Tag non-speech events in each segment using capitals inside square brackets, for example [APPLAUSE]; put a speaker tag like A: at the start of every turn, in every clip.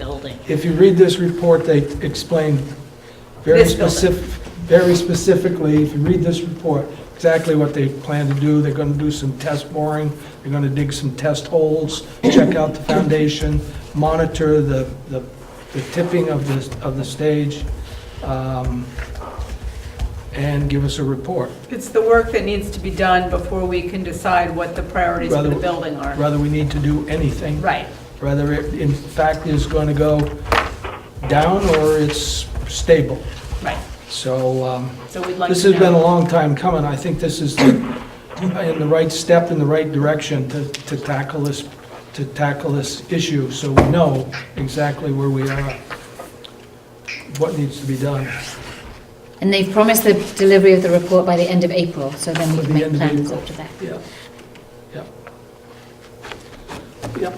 A: building.
B: If you read this report, they explain very
A: This building.
B: specific, very specifically, if you read this report, exactly what they plan to do. They're gonna do some test boring, they're gonna dig some test holes, check out the foundation, monitor the, the the tipping of the, of the stage, um, and give us a report.
C: It's the work that needs to be done before we can decide what the priorities for the
B: Rather-
C: building are.
B: Whether we need to do anything.
C: Right.
B: Whether it, in fact, is gonna go down or it's stable.
C: Right,
B: So, um,
C: so we'd like
B: This
C: to
B: has been a
C: know.
B: long time coming. I think this is the- in the right step, in the right direction to to tackle this, to tackle this issue, so we know exactly where we are, what needs to be done.
D: And they've promised the delivery of the report by the end of April, so then
B: By
D: we
B: the
D: can make
B: end of
D: plans
B: April.
D: after that.
B: Yeah, yeah, yeah.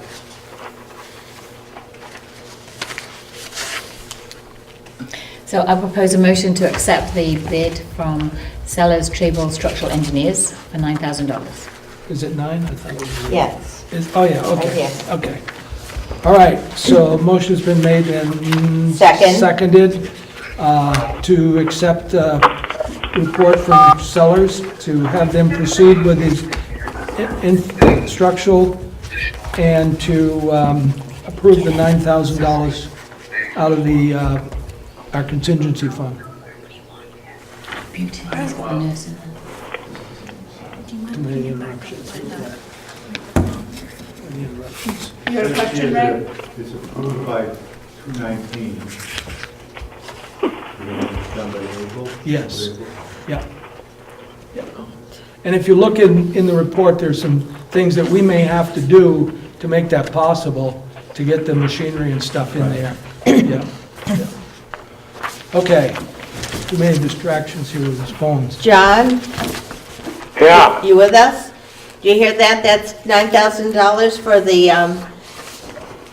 D: So I propose a motion to accept the bid from Sellers Tribal Structural Engineers for $9,000.
B: Is it nine? I thought it was-
A: Yes.
B: Is- Oh, yeah, okay,
A: Yes.
B: okay. All right, so a motion's been made and...
A: Second.
B: Seconded uh, to accept uh report from Sellers to have them proceed with these in- in- structural and to um, approve the $9,000 out of the, uh, our contingency fund.
D: Beauty. It's got the nurse in there.
B: Any interruptions? Any interruptions?
C: You had a question, Ray?
E: It's approved by 219. Done by April?
B: Yes. Yeah. Yeah. And if you look in, in the report, there's some things that we may have to do to make that possible, to get the machinery and stuff in there. Yeah. yeah. Okay. Too many distractions here with these phones.
A: John,
F: Yeah,
A: you with us? Do you hear that? That's $9,000 for the um,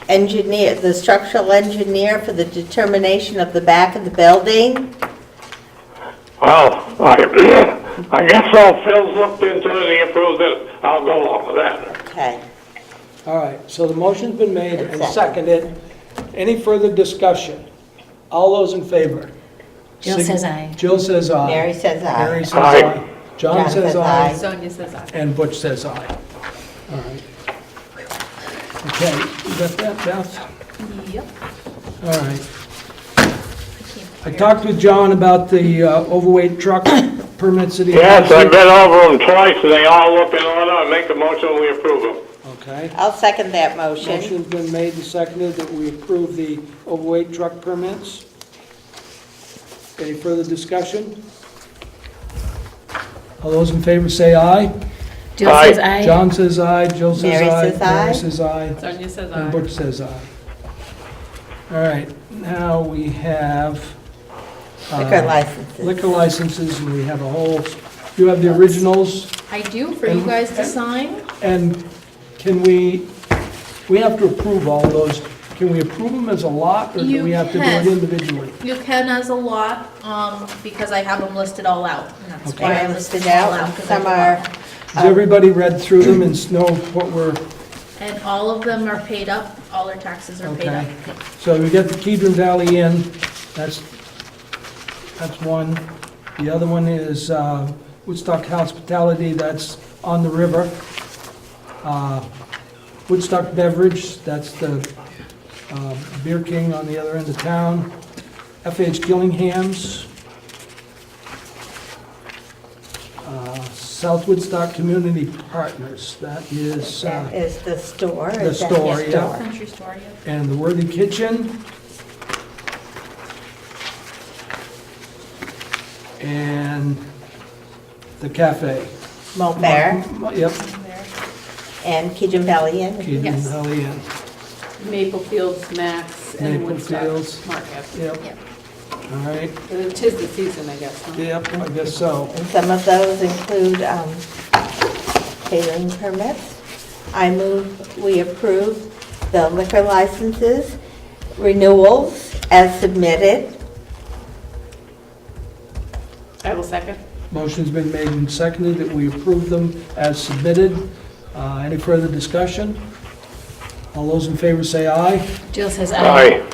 A: engineer, the structural engineer for the determination of the back of the building?
F: well, I, [CLEARS THROAT] I guess I'll Phil's looked into it, he approved it, I'll go along with that.
A: Okay.
B: All right, so the motion's been made and
A: Second.
B: seconded. Any further discussion? All those in favor?
D: Jill
B: Sig-
D: says aye.
B: Jill says aye.
A: Mary says
B: Mary
A: aye.
B: says
F: Aye.
B: aye. John says aye.
C: Sonia says aye.
B: And Butch says aye. All right. Okay, you got that, Beth?
C: Yep.
B: All right. I talked with John about the uh, overweight truck permits that he has.
F: Yes, I've been over them twice, and they all look in order, I make a motion, we approve them.
B: Okay.
A: I'll second that motion.
B: Motion's been made and seconded that we approve the overweight truck permits. Any further discussion? All those in favor say aye.
D: Jill
F: Aye.
D: says aye.
B: John says aye, Jill says
A: Mary
B: aye.
A: says aye.
B: Mary says aye.
C: Sonia says
B: And
C: aye.
B: Butch says aye. All right, now we have. uh,
A: Liquor licenses.
B: Liquor licenses, and we have a whole, you have the originals,
G: I do, for
A: Mhm.
G: you guys to sign.
B: and can we, we have to approve all those. Can we approve them as a lot, or do
G: You
B: we have to do it
G: can.
B: individually?
G: You can as a lot, um, because I have them listed all out, and that's
B: Okay.
G: why I
A: They're
G: listed
A: listed
G: them all
A: out,
G: out.
A: and
G: 'cause I
A: some
G: bought
A: are,
G: them.
B: Has everybody read through them and know what we're,
G: And all of them are paid up, all their taxes are paid up.
B: okay? So we got the Kedron Valley Inn, that's, that's one. The other one is uh, Woodstock Hospitality, that's on the river. Uh, Woodstock Beverage, that's the uh, Beer King on the other end of town. FH Gillingham's. Uh, South Woodstock Community Partners, that is, uh,
A: That is the store.
B: The
A: is that
B: store, yeah.
G: Country store, yeah.
B: and the Worthy Kitchen. And the cafe.
A: Malt Bear
B: Yep,
A: and Kitchen Valley Inn.
B: Keaton
G: Yes.
B: Valley Inn.
C: Maple Fields, Max, and
B: Maple
C: Woodstock
B: Fields.
C: Market.
B: Yep,
G: Yep.
B: all right,
C: It is the season, I guess, huh?
B: yep, I guess so.
A: And some of those include um, catering permits. I move we approve the liquor licenses, renewals as submitted.
C: I will second.
B: Motion's been made and seconded that we approve them as submitted. Uh, Any further discussion? All those in favor say aye.
D: Jill says
F: Aye.